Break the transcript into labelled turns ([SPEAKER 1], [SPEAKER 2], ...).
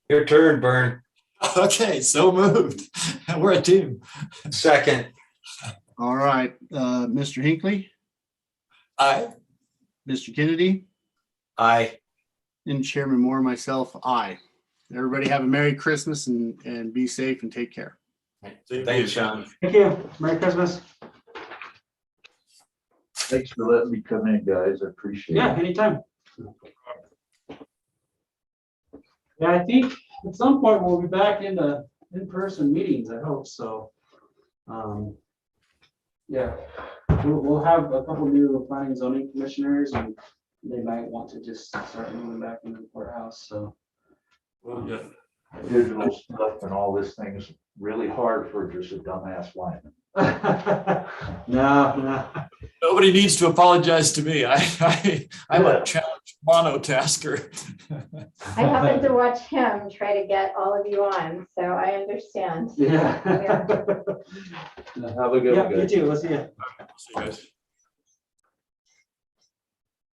[SPEAKER 1] Your turn, Bern.
[SPEAKER 2] Okay, so moved. We're a team.
[SPEAKER 1] Second.
[SPEAKER 3] All right, uh, Mr. Hinckley,
[SPEAKER 2] Aye.
[SPEAKER 3] Mr. Kennedy,
[SPEAKER 1] Aye.
[SPEAKER 3] and Chairman Moore, myself, I. Everybody have a Merry Christmas and, and be safe and take care.
[SPEAKER 1] Thanks, Sean.
[SPEAKER 4] Thank you. Merry Christmas.
[SPEAKER 5] Thanks for letting me come in, guys. I appreciate
[SPEAKER 4] Yeah,
[SPEAKER 5] it.
[SPEAKER 4] anytime. Yeah, I think at some point we'll be back in the in-person meetings, I hope so. Um, Yeah, we'll, we'll have a couple new planning zoning commissioners and they might want to just start moving back into the courthouse, so.
[SPEAKER 5] Yeah. Digital stuff and all this thing is really hard for just a dumbass lineman.
[SPEAKER 4] No, no.
[SPEAKER 2] Nobody needs to apologize to me. I, I, I'm a challenge monotasker.
[SPEAKER 6] I happened to watch him try to get all of you on, so I understand.
[SPEAKER 4] Yeah.
[SPEAKER 5] Have a good
[SPEAKER 4] Yeah,
[SPEAKER 5] one,
[SPEAKER 4] you
[SPEAKER 5] guys.
[SPEAKER 4] too, let's see ya.
[SPEAKER 2] See you guys.